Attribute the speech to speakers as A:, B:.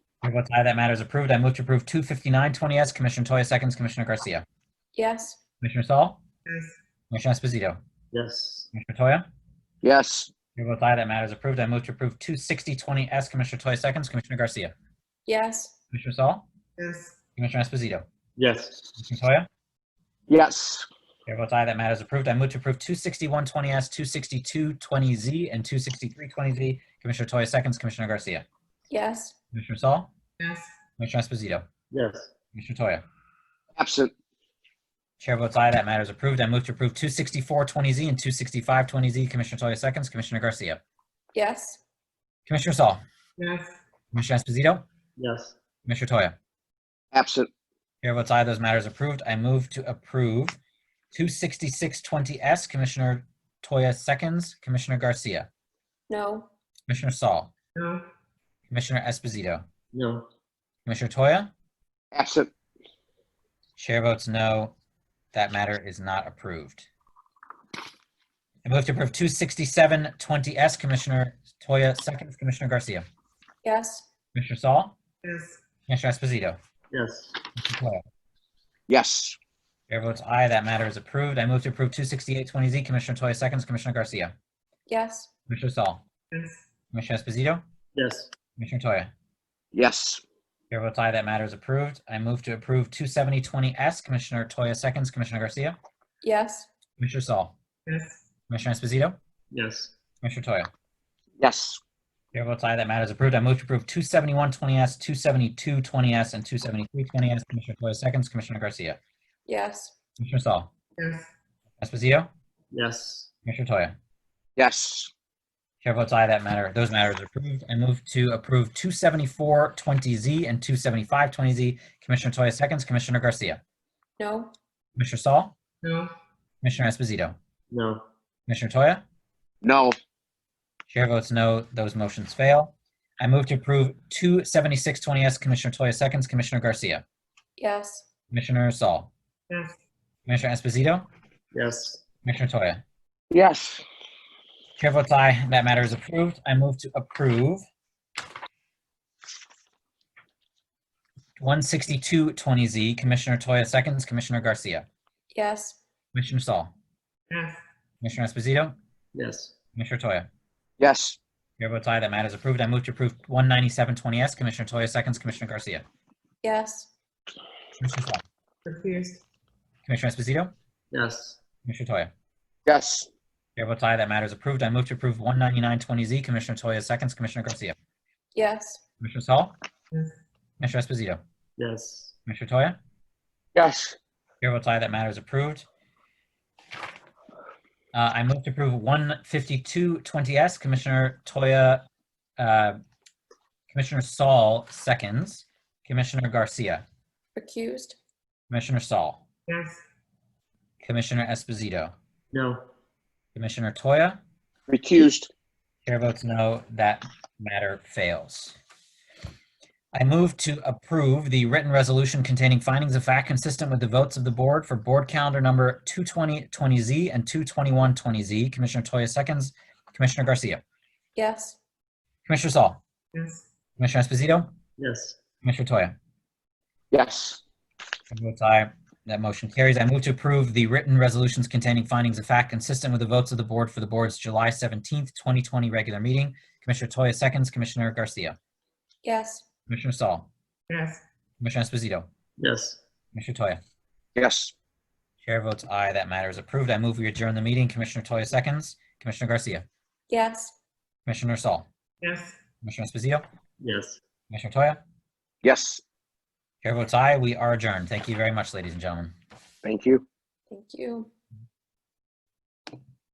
A: Chair votes aye, that matter is approved. I move to approve 25920S. Commissioner Toya seconds, Commissioner Garcia.
B: yes,
A: Commissioner Saul?
C: yes,
A: Commissioner Esposito?
D: yes,
A: Commissioner Toya?
E: yes,
A: Chair votes aye, that matter is approved. I move to approve 26020S. Commissioner Toya seconds, Commissioner Garcia.
B: yes,
A: Commissioner Saul?
C: yes,
A: Commissioner Esposito?
D: yes,
A: Commissioner Toya?
E: yes,
A: Chair votes aye, that matter is approved. I move to approve 26120S, 26220Z, and 26320Z. Commissioner Toya seconds, Commissioner Garcia.
B: yes,
A: Commissioner Saul?
C: yes,
A: Commissioner Esposito?
D: yes,
A: Commissioner Toya?
E: absent,
A: Chair votes aye, that matter is approved. I move to approve 26420Z and 26520Z. Commissioner Toya seconds, Commissioner Garcia.
B: yes,
A: Commissioner Saul.
C: yes,
A: Commissioner Esposito.
D: yes,
A: Commissioner Toya.
E: absent,
A: Chair votes aye, those matters approved. I move to approve 26620S. Commissioner Toya seconds, Commissioner Garcia.
B: no,
A: Commissioner Saul.
C: no,
A: Commissioner Esposito.
D: no,
A: Commissioner Toya.
E: absent,
A: Chair votes no. That matter is not approved. I move to approve 26720S. Commissioner Toya seconds, Commissioner Garcia.
B: yes,
A: Commissioner Saul.
C: yes,
A: Commissioner Esposito.
D: yes,
A: Commissioner Toya.
E: yes,
A: Chair votes aye, that matter is approved. I move to approve 26820Z. Commissioner Toya seconds, Commissioner Garcia.
B: yes,
A: Commissioner Saul.
C: yes,
A: Commissioner Esposito.
D: yes,
A: Commissioner Toya.
E: yes,
A: Chair votes aye, that matter is approved. I move to approve 27020S. Commissioner Toya seconds, Commissioner Garcia.
B: yes,
A: Commissioner Saul.
C: yes,
A: Commissioner Esposito.
D: yes,
A: Commissioner Toya.
E: yes,
A: Chair votes aye, that matter is approved. I move to approve 27120S, 27220S, and 27320S. Commissioner Toya seconds, Commissioner Garcia.
B: yes,
A: Commissioner Saul.
C: yes,
A: Esposito.
D: yes,
A: Commissioner Toya.
E: yes,
A: Chair votes aye, that matter, those matters are approved. I move to approve 27420Z and 27520Z. Commissioner Toya seconds, Commissioner Garcia.
B: no,
A: Commissioner Saul,
C: no,
A: Commissioner Esposito,
D: no,
A: Commissioner Toya.
E: no,
A: Chair votes no, those motions fail. I move to approve 27620S, Commissioner Toya seconds, Commissioner Garcia.
B: yes,
A: Commissioner Saul,
C: yes,
A: Commissioner Esposito,
D: yes,
A: Commissioner Toya.
E: yes,
A: Chair votes aye, that matter is approved. I move to approve 16220Z, Commissioner Toya seconds, Commissioner Garcia.
B: yes,
A: Commissioner Saul.
C: yes,
A: Commissioner Esposito.
D: yes,
A: Commissioner Toya.
E: yes,
A: Chair votes aye, that matter is approved. I move to approve 19720S, Commissioner Toya seconds, Commissioner Garcia.
B: yes,
A: Commissioner Saul.
C: refused,
A: Commissioner Esposito.
D: yes,
A: Commissioner Toya.
E: yes,
A: Chair votes aye, that matter is approved. I move to approve 19920Z, Commissioner Toya seconds, Commissioner Garcia.
B: yes,
A: Commissioner Saul.
C: Yes.
A: Commissioner Esposito.
D: yes,
A: Commissioner Toya.
E: yes,
A: Chair votes aye, that matter is approved. Uh, I move to approve 15220S, Commissioner Toya, uh, Commissioner Saul seconds, Commissioner Garcia,
B: recused,
A: Commissioner Saul,
C: yes,
A: Commissioner Esposito,
D: no,
A: Commissioner Toya.
E: recused,
A: Chair votes no, that matter fails. I move to approve the written resolution containing findings of fact consistent with the votes of the board for board calendar number 22020Z and 22120Z. Commissioner Toya seconds, Commissioner Garcia.
B: yes,
A: Commissioner Saul.
C: yes,
A: Commissioner Esposito.
D: yes,
A: Commissioner Toya.
E: yes,
A: Chair Votes aye. That motion carries. I move to approve the written resolutions containing findings of fact consistent with the votes of the board for the board's July 17th, 2020 regular meeting. Commissioner Toya seconds, Commissioner Garcia.
B: yes,
A: Commissioner Saul.
C: yes,
A: Commissioner Esposito.
D: yes,
A: Commissioner Toya.
E: yes,
A: Chair votes aye. That matter is approved. I move we adjourn the meeting. Commissioner Toya seconds. Commissioner Garcia.
B: yes,
A: Commissioner Saul.
C: yes.
A: Commissioner Esposito.
D: yes.
A: Commissioner Toya.
E: yes,
A: Chair votes aye. We are adjourned. Thank you very much, ladies and gentlemen.
E: thank you.
B: thank you.